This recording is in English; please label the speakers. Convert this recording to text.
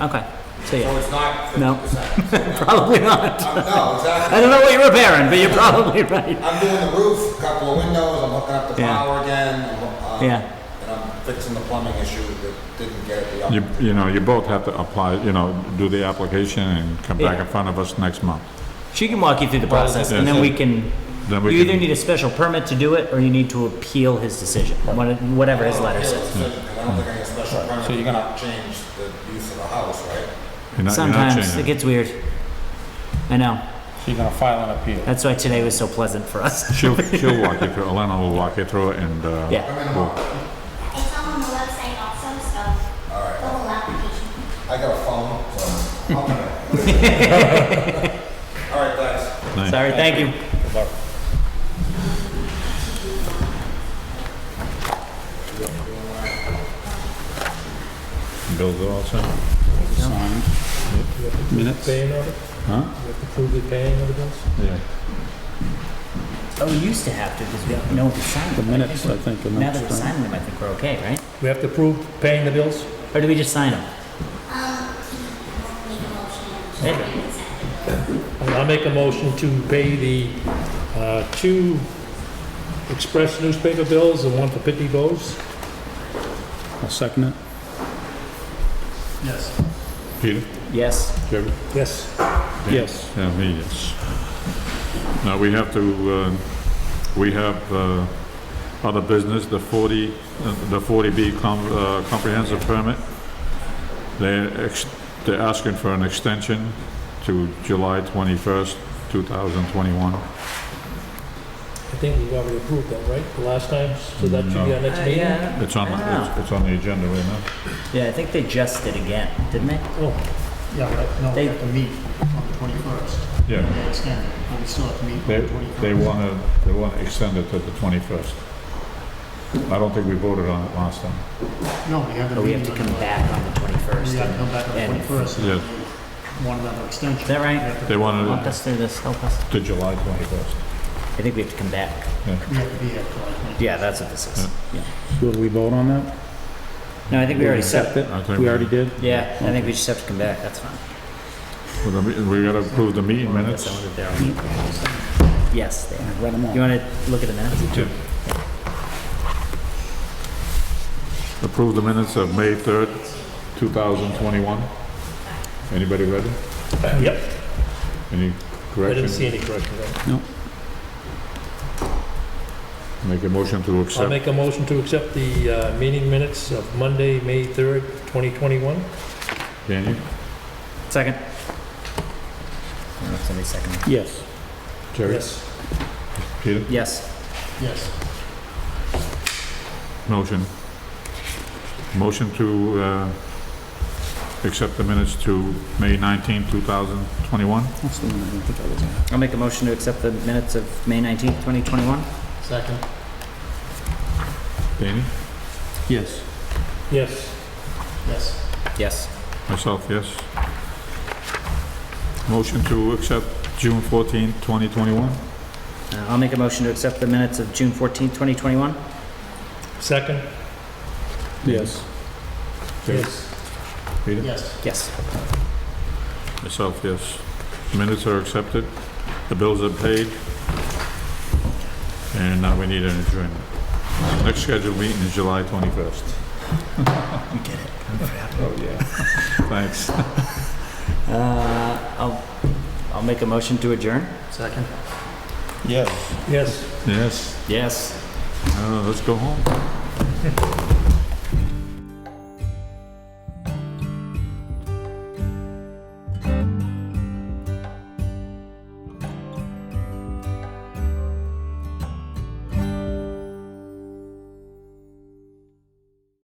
Speaker 1: Okay, so yeah,
Speaker 2: So it's not
Speaker 1: No.
Speaker 2: fifty percent.
Speaker 1: probably not.
Speaker 2: No,
Speaker 1: I
Speaker 2: exactly.
Speaker 1: don't know what you're repairing, but you're probably right.
Speaker 2: I'm doing the roof, a couple of windows, I'm hooking up the
Speaker 1: Yeah.
Speaker 2: power again. I'm, um,
Speaker 1: Yeah.
Speaker 2: And I'm fixing the plumbing issue that didn't get at the
Speaker 3: You,
Speaker 2: upper.
Speaker 3: you know, you both have to apply, you know, do the application and come back
Speaker 1: Yeah.
Speaker 3: in front of us next month.
Speaker 1: She can walk you through the process, and then we can,
Speaker 3: Then
Speaker 1: you
Speaker 3: we
Speaker 1: either
Speaker 3: can-
Speaker 1: need a special permit to do it, or you need to appeal his decision, what- whatever his letter says.
Speaker 2: I don't think I get special permit, you're gonna change the use of the house, right?
Speaker 3: You're not- you're not
Speaker 1: Sometimes it
Speaker 3: changing.
Speaker 1: gets weird. I know,
Speaker 4: So you're gonna file an appeal.
Speaker 1: that's why today was so pleasant for us.
Speaker 3: She'll, she'll walk you through, Elena will walk you through it and, uh,
Speaker 1: Yeah.
Speaker 2: I'm in a
Speaker 3: we'll-
Speaker 2: mo-
Speaker 5: It's all on the website also, so
Speaker 2: All
Speaker 5: the
Speaker 2: right,
Speaker 5: whole application.
Speaker 2: I got a phone, so. I'll- All right, thanks.
Speaker 3: nice.
Speaker 1: Sorry, thank you.
Speaker 3: Bill's all set?
Speaker 4: Signed. Minutes?
Speaker 6: Paying order?
Speaker 3: Huh?
Speaker 6: You have to prove the paying of the bills?
Speaker 3: Yeah.
Speaker 1: Oh, we used to have to, because we don't know the sign.
Speaker 4: The minutes, I think, are
Speaker 1: Now that we
Speaker 4: next. right?
Speaker 1: signed them, I think we're okay, right?
Speaker 6: We have to prove paying the bills?
Speaker 1: Or do we just sign them?
Speaker 5: Um, make a motion.
Speaker 1: There you go.
Speaker 6: I'll make a motion to pay the uh, two express newspaper bills, the one for Pitney Bowes.
Speaker 4: I'll second it.
Speaker 6: Yes.
Speaker 3: Peter?
Speaker 1: Yes.
Speaker 3: Kevin?
Speaker 6: Yes.
Speaker 4: Yes.
Speaker 3: Yeah, me, yes. Now, we have to, uh, we have uh, other business, the 40, uh, the 40B com- uh, comprehensive permit. They're ex- they're asking for an extension to July 21st, 2021.
Speaker 6: I think we've already approved that, right, the last time, so that should be our next
Speaker 1: Uh,
Speaker 6: meeting?
Speaker 1: yeah, I don't-
Speaker 3: It's on,
Speaker 1: I
Speaker 3: the-
Speaker 1: don't know.
Speaker 3: it's- it's on the agenda right now.
Speaker 1: Yeah, I think they just did again, didn't they?
Speaker 6: Oh, yeah, right,
Speaker 1: They-
Speaker 7: have to meet on the 21st.
Speaker 3: Yeah,
Speaker 7: They extend it, but we still have to meet on
Speaker 3: they,
Speaker 7: the 21st.
Speaker 3: they want to, they want to extend it to the 21st. I don't think we voted on it last time.
Speaker 7: No, we have
Speaker 1: But
Speaker 7: the
Speaker 1: we have
Speaker 7: meeting
Speaker 1: to
Speaker 7: on
Speaker 1: come
Speaker 7: the-
Speaker 1: back on the twenty-first.
Speaker 7: We have to come back on the
Speaker 1: and-
Speaker 7: 21st.
Speaker 3: Yeah.
Speaker 7: One another extension.
Speaker 1: Is that right?
Speaker 7: We have
Speaker 3: They
Speaker 7: to-
Speaker 3: wanted
Speaker 1: Walk
Speaker 3: it
Speaker 1: us through this, help us.
Speaker 3: to July 21st.
Speaker 1: I think we have to come back.
Speaker 7: We have to be at July 21st.
Speaker 1: Yeah, that's what this is.
Speaker 4: Hmm.
Speaker 1: Yeah.
Speaker 4: Will we vote on that?
Speaker 1: No, I think we already set,
Speaker 4: Accept it?
Speaker 3: I think
Speaker 4: We
Speaker 3: we-
Speaker 4: already did?
Speaker 1: yeah, I think we just have to come back, that's fine.
Speaker 3: Well, the me- We gotta approve the meeting minutes.
Speaker 1: Someone that they're on. Yes, they are.
Speaker 4: Read them
Speaker 1: You
Speaker 4: all.
Speaker 1: wanna look at the minutes?
Speaker 3: Tim. Approve the minutes of May 3rd, 2021. Anybody read it?
Speaker 6: Yep,
Speaker 3: Any
Speaker 6: I didn't
Speaker 3: corrections?
Speaker 6: see any correction there.
Speaker 3: Make a motion to
Speaker 6: I'll
Speaker 3: accept.
Speaker 6: make a motion to accept the uh, meeting minutes of Monday, May 3rd, 2021.
Speaker 3: Can you?
Speaker 1: Second. I don't know if somebody seconded.
Speaker 4: Yes.
Speaker 3: Jerry?
Speaker 6: Yes.
Speaker 3: Peter?
Speaker 1: Yes.
Speaker 7: Yes.
Speaker 3: Motion. Motion to uh, accept the minutes to May 19, 2021.
Speaker 4: That's the one I didn't think I was at.
Speaker 1: I'll make a motion to accept the minutes of May nineteenth, twenty twenty-one.
Speaker 7: Second.
Speaker 3: Danny?
Speaker 4: Yes.
Speaker 6: Yes.
Speaker 7: Yes.
Speaker 1: Yes.
Speaker 3: Myself, yes. Motion to accept June 14, 2021.
Speaker 1: Uh, I'll make a motion to accept the minutes of June fourteenth, twenty twenty-one.
Speaker 6: Second?
Speaker 4: Yes.
Speaker 3: Jerry? Peter?
Speaker 7: Yes.
Speaker 1: Yes.
Speaker 3: Myself, yes. Minutes are accepted, the bills are paid, and now we need an adjournment. Next scheduled meeting is July 21st. You get it. Oh, yeah. Thanks.
Speaker 1: Uh, I'll, I'll make a motion to adjourn.
Speaker 7: Second.
Speaker 4: Yes.
Speaker 6: Yes.
Speaker 3: Yes,
Speaker 1: Yes.
Speaker 3: Uh, let's go home.